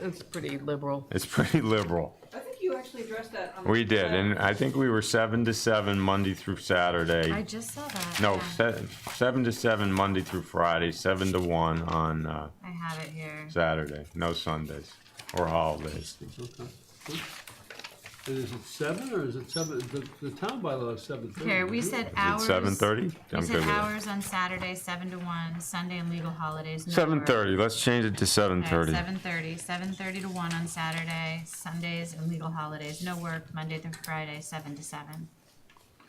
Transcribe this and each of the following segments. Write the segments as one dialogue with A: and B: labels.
A: it's pretty liberal.
B: Uh, It's pretty liberal.
C: I think you actually addressed that on the.
B: We did, and I think we were seven to seven Monday through
D: I
B: Saturday.
D: just saw that.
B: No,
D: yeah.
B: seven, seven to seven Monday through Friday, seven to one on, uh,
D: I have it here.
B: Saturday, no Sundays or holidays.
E: Okay, good. And is it seven or is it seven, the, the town bylaw is seven thirty?
D: Here, we said
B: It's
D: hours.
B: seven thirty?
D: We said hours on Saturday, seven to one, Sunday and legal holidays. no
B: Seven
D: work.
B: thirty, let's change it to seven thirty.
D: Seven thirty, seven thirty to one on Saturday, Sundays and legal holidays, no work, Monday through Friday, seven to seven.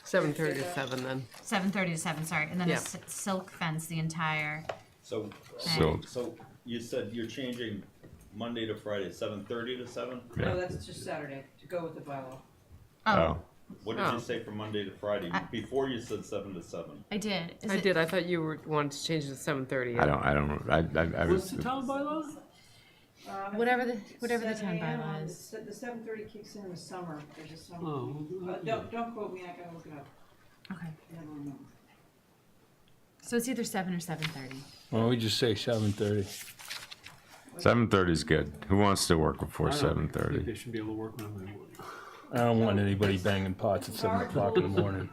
A: Seven thirty to seven then.
D: Seven thirty to seven, sorry, and then a
A: Yeah.
D: s- silk fence the entire,
F: So,
B: So,
F: so you said you're changing Monday to Friday, seven thirty to seven?
B: yeah.
C: No, that's just Saturday, to go with the bylaw.
D: oh,
B: Oh,
F: What did
A: Oh.
F: you say from Monday to Friday?
D: I-
F: Before you said seven to seven.
D: I did. Is
A: I
D: it-
A: did, I thought you were, wanted to change it to seven thirty.
B: I don't, I don't, I, I, I
E: What's
B: was,
E: the town bylaw?
C: Um, I
D: Whatever
C: think
D: the, whatever the town
C: 7 a.m. on
D: bylaw
C: the
D: is.
C: se- The seven thirty kicks in in the summer, there's a summer.
E: Oh, well,
C: But
E: yeah.
C: don't, don't quote me, I gotta look it up.
D: Okay,
C: I don't remember.
D: so it's either seven or seven thirty.
G: Why don't we just say seven thirty?
B: seven thirty's good. Who wants to work before
E: I don't
B: seven
E: think
B: thirty?
E: They should be able to work whenever they want.
G: I don't want anybody banging pots at seven o'clock in the morning.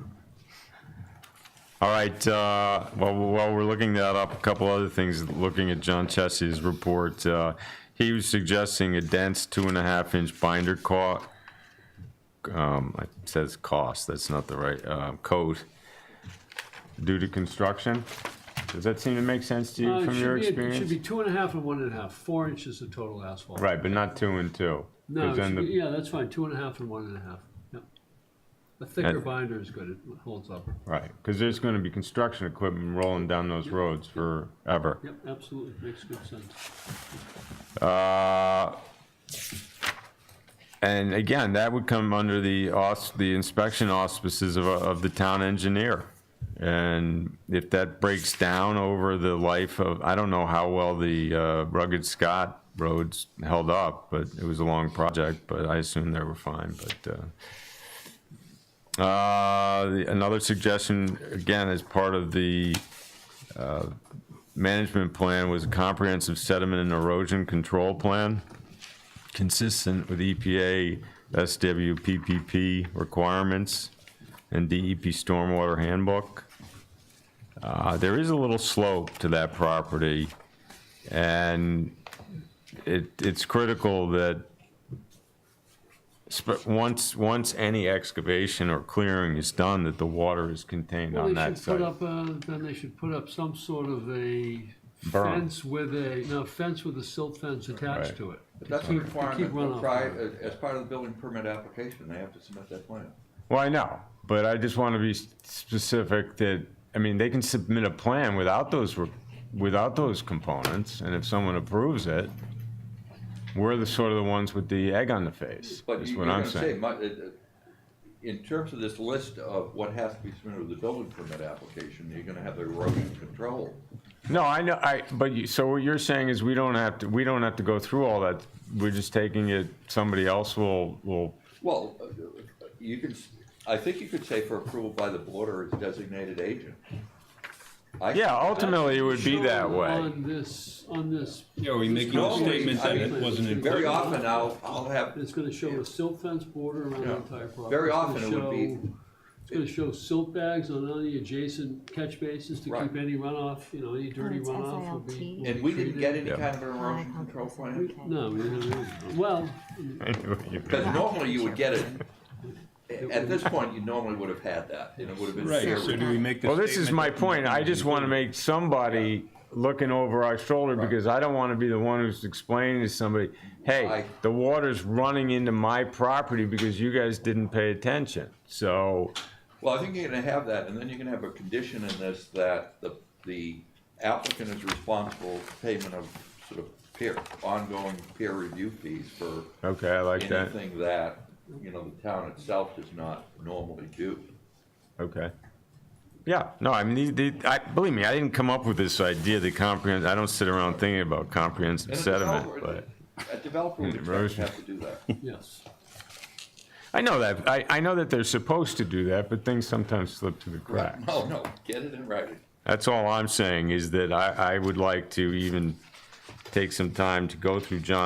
B: All right, uh, while, while we're looking that up, a couple other things, looking at John Chessie's report, uh, he was suggesting a dense two and a half inch binder coat. Um, it says cost, that's not the right, uh, code. Due to construction, does that seem to make sense to
E: Uh,
B: you
E: it
B: from
E: should
B: your
E: be- It should be
B: experience?
E: two and a half and one and a half, four inches of total asphalt.
B: Right, but not two and two. 'cause
E: No, it
B: then
E: should
B: the-
E: be- yeah, that's fine, two and a half and one and a half, yeah. A thicker
B: And-
E: binder is good, it holds up.
B: Right, because there's gonna be construction equipment rolling down those roads forever.
E: Yep, absolutely, makes good sense.
B: Uh, And again, that would come under the aus, the inspection auspices of, of the town engineer. And if that breaks down over the life of, I don't know how well the uh, rugged Scott roads held up, but it was a long project, but I assume they were fine, but, uh, uh, the- another suggestion, again, as part of the, uh, management plan was a comprehensive sediment and erosion control plan, consistent with E EPA, SWPPP requirements, and DEP stormwater handbook. Uh, there is a little slope to that property, and it, it's critical that sp- once, once any excavation or clearing is done, that the water is contained
E: Well,
B: on
E: they
B: that
E: should put
B: site.
E: up, uh, then they should put up some sort of a
B: Berm.
E: fence with a, no, fence with a silt fence attached
B: Right.
E: to it. to
H: That's a
E: keep- to keep
H: requirement,
E: runoff
H: for
E: out.
H: pri- as part of the building permit application, they have to submit that plan.
B: Well, I know, but I just want to be s- specific that, I mean, they can submit a plan without those, re- without those components, and if someone approves it, we're the sort of the ones with the egg on the face,
H: But
B: is
H: you- you're
B: what I'm
H: gonna say,
B: saying.
H: mu- it- it- in terms of this list of what has to be submitted with the building permit application, you're gonna have the erosion control.
B: No, I know, I, but you, so what you're saying is we don't have to, we don't have to go through all that. We're just taking it, somebody else will, will,
H: Well, uh, you can, s- I think you could say for approval by the board or its designated agent. I-
B: yeah, ultimately, it would be that
E: Shown
B: way.
E: On this, on this,
G: Yeah, we make a
H: Normally,
G: statement
H: I
G: that
H: mean,
G: it wasn't included.
H: Very often, I'll, I'll have,
E: it's gonna show a silt fence border around the
H: Yeah.
E: entire property.
H: Very
E: It's gonna
H: often it would be-
E: show- It's gonna show silt bags on all the adjacent catch bases to
H: Right.
E: keep any runoff, you know, any dirty
D: it's
E: runoff
D: SILT.
E: will be. will
H: and
E: be
H: we didn't
E: treated.
H: get any
B: Yeah.
H: kind of an
D: I
H: erosion
D: called it
H: control
D: the
H: plan.
D: SILT.
E: No, we didn't have- well,
H: Because normally you would get it, at this point, you normally would have had that, and it would have been
G: Right,
H: fair.
G: so do we make the?
B: Well, this is
G: statement
B: my
G: that-
B: point. I just want to make somebody looking over our shoulder because I don't want to be the one who's explaining to somebody, hey,
H: I-
B: the water's running into my property because you guys didn't pay attention. So,
H: Well, I think you're gonna have that, and then you're gonna have a condition in this that the, the applicant is responsible for payment of sort of peer, ongoing peer review fees for
B: okay, I like that.
H: anything that, you know, the town itself does not normally do.
B: Okay. Yeah, no, I mean, the, the, I, believe me, I didn't come up with this idea, the comprehend, I don't sit around thinking about comprehensive
H: And a
B: sediment,
H: developer-
B: but.
H: A developer would expect to
B: Erosion.
H: have to do that.
E: yes.
B: I know that, I, I know that they're supposed to do that, but things sometimes slip through the cracks.
H: No, no, get it in writing.
B: That's all I'm saying, is that I, I would like to even take some time to go through John